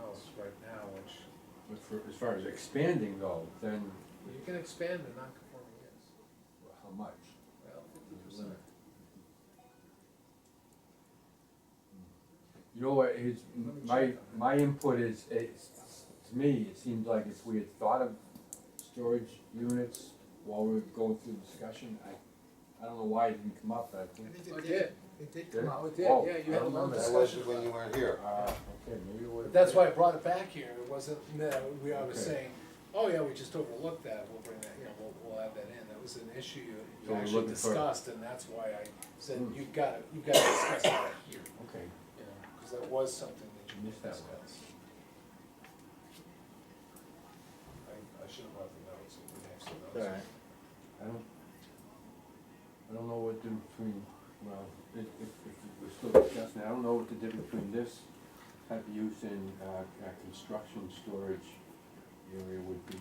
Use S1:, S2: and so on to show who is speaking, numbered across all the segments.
S1: else right now, which
S2: But for, as far as expanding though, then
S1: you can expand the non-conforming use.
S2: how much?
S1: Well, fifty
S2: There's a
S1: percent.
S2: limit. You know what, his,
S1: Let me
S2: my,
S1: check on that.
S2: my input is, it's, to me, it seems like if we had thought of storage units while we were going through the discussion, I, I don't know why it didn't come up, but I
S3: I
S2: think.
S3: think
S1: Oh, it did.
S3: it did, it did
S2: Did
S3: come
S2: it?
S3: out.
S1: Oh, it did,
S2: Oh,
S1: yeah, you
S2: I
S1: had a long
S2: remember that.
S4: That
S1: discussion
S4: wasn't
S1: about
S4: when you
S1: it.
S4: weren't here.
S2: Uh, okay, maybe it would have.
S1: That's why I brought it back here, it wasn't, no, we, I was
S2: Okay.
S1: saying, oh yeah, we just overlooked that, we'll bring that, you know, we'll, we'll add that in, that was an issue you, you
S2: So we're
S1: actually
S2: looking for-
S1: discussed, and that's why I said,
S2: Hmm.
S1: you've gotta, you've gotta discuss that here,
S2: Okay,
S1: you know, cause that was something that you
S2: Missed
S1: missed
S2: that
S1: discuss.
S2: one.
S1: I, I should have brought the notes, we have some notes.
S2: alright, I don't, I don't know what the difference between, well, if, if, if we're still discussing, I don't know what the difference between this type of use and, uh, uh, construction storage area would be.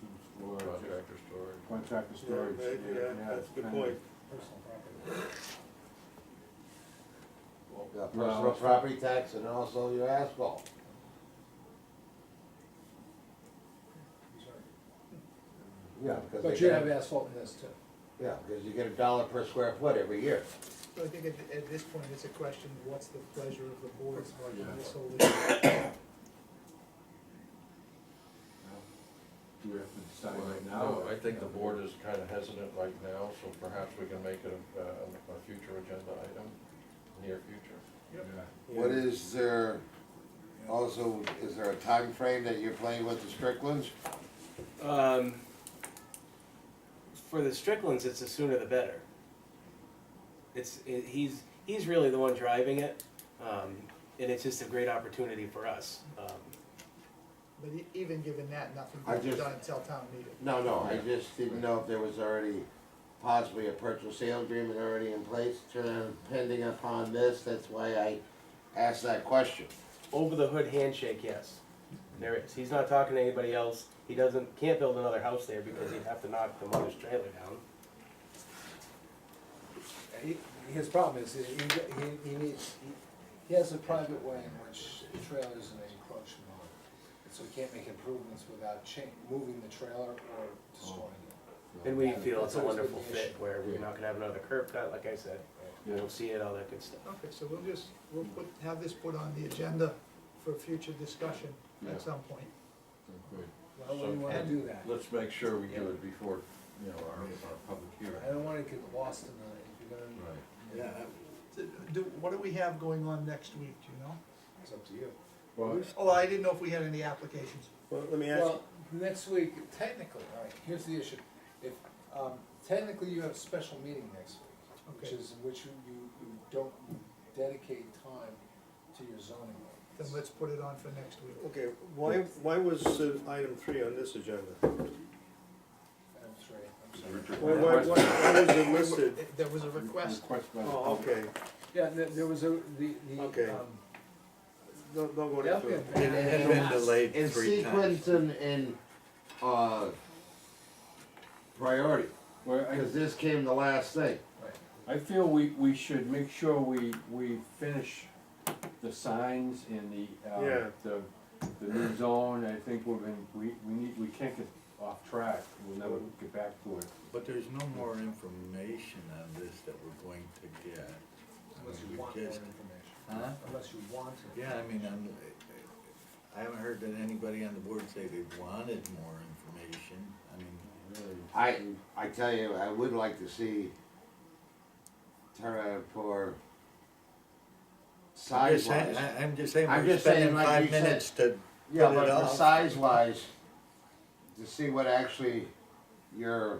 S2: Food storage, uh,
S4: Contractor storage.
S2: Contractor storage.
S3: maybe,
S2: yeah,
S3: yeah,
S2: yeah,
S3: that's a good
S2: kind of-
S3: point.
S1: Personal property.
S4: Yeah,
S2: Well,
S4: personal
S2: it's-
S4: property tax and also your asphalt.
S1: He's right.
S4: Yeah, because
S1: But
S4: they
S1: you have
S4: get,
S1: asphalt in this too.
S4: yeah, because you get a dollar per square foot every year.
S3: So I think at, at this point, it's a question, what's the pleasure of the board
S2: Yeah.
S3: on this whole issue?
S2: Do we have to decide right now?
S5: No, I think the board is kind of hesitant right now, so perhaps we can make it a, uh, a future agenda item, near future.
S2: Yeah.
S4: What is there, also, is there a time frame that you're playing with the Stricklands?
S6: Um, for the Stricklands, it's the sooner the better. It's it, he's he's really the one driving it, um, and it's just a great opportunity for us. Um,
S3: But e- even given that, nothing
S4: I
S3: can be
S4: just-
S3: done until town meeting.
S4: No, no, I just didn't know if there was already possibly a purchase sale agreement already in place, uh, pending upon this, that's why I asked that question.
S6: over the hood handshake, yes, there is. He's not talking to anybody else. He doesn't can't build another house there because he'd have to knock the mother's trailer down.
S1: He, his problem is, he, he, he needs, he, he has a private way in which the trailer is an encroachment on. it. So he can't make improvements without cha, moving the trailer or destroying it.
S6: And we feel
S1: That's
S6: it's a
S1: always been
S6: wonderful
S1: the issue.
S6: fit where we're not gonna have another curb cut, like I said. We'll see it, all that good stuff.
S3: Okay, so we'll just, we'll put, have this put on the agenda for future discussion
S2: Yeah.
S3: at some point.
S2: Good.
S1: Why would you wanna do that?
S5: Let's make sure we do it before, you know, our, our public hearing.
S1: I don't wanna get lost in the, if you're gonna,
S5: Right.
S3: Yeah. Do, what do we have going on next week, do you know?
S1: it's up to you.
S2: Well,
S3: Oh, I didn't know if we had any applications.
S7: Well, let me ask,
S1: Well, next week, technically, all right, here's the issue. If, um, technically you have a special meeting next week, which
S3: Okay.
S1: is, in which you, you you don't dedicate time to your zoning. ordinance.
S3: Then let's put it on for next week.
S7: okay, why, why was uh, item three on this agenda?
S1: Item three, I'm sorry.
S7: Why, why, why why was it listed?
S3: There was a request.
S2: Request by the
S7: Oh,
S2: public.
S7: okay,
S1: Yeah, there, there was a, the, the,
S7: Okay.
S1: um,
S7: don't, don't go
S1: the
S7: into it.
S1: applicant
S4: It had been delayed three In sequence and, and, uh, priority,
S2: Well, I,
S4: because this came the last thing.
S2: I feel we, we should make sure we, we finish the signs and the, uh,
S7: Yeah.
S2: the, the new zone, I think we're gonna, we, we need, we can't get off track, we'll never get back to it.
S8: But there's no more information on this that we're going to get.
S1: unless you
S8: We
S1: want more
S8: just-
S1: information,
S8: Huh?
S1: unless you want to.
S8: Yeah, I mean, I'm, I haven't heard that anybody on the board say they wanted more information. I mean,
S4: I, I tell you, I would like to see turnout for
S8: I'm
S4: size
S8: just saying,
S4: wise.
S8: I- I'm just saying,
S4: I'm
S8: we're
S4: just saying,
S8: spending
S4: like
S8: five
S4: you said-
S8: minutes to,
S4: Yeah,
S8: put it
S4: but for
S8: off.
S4: size wise, to see what actually your,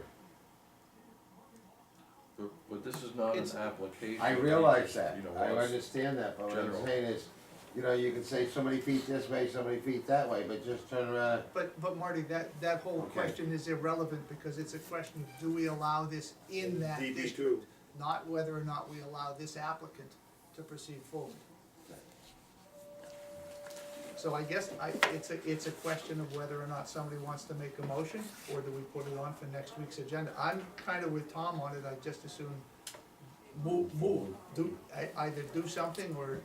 S5: But- But this is not an
S3: It's-
S5: application.
S4: I realize
S5: just,
S4: that,
S5: you know,
S4: I
S5: what's-
S4: understand that, but what I'm
S5: general.
S4: saying is, you know, you can say so many feet this way, so many feet that way, but just turn around.
S3: But, but Marty, that, that whole
S4: Okay.
S3: question is irrelevant because it's a question, of do we allow this in that
S7: DB
S3: district?
S7: two,
S3: Not whether or not we allow this applicant to proceed forward. So I guess I, it's a, it's a question of whether or not somebody wants to make a motion or do we put it on for next week's agenda? I'm kind of with Tom on it, I just assume move, move, e-, do, ei- either do something or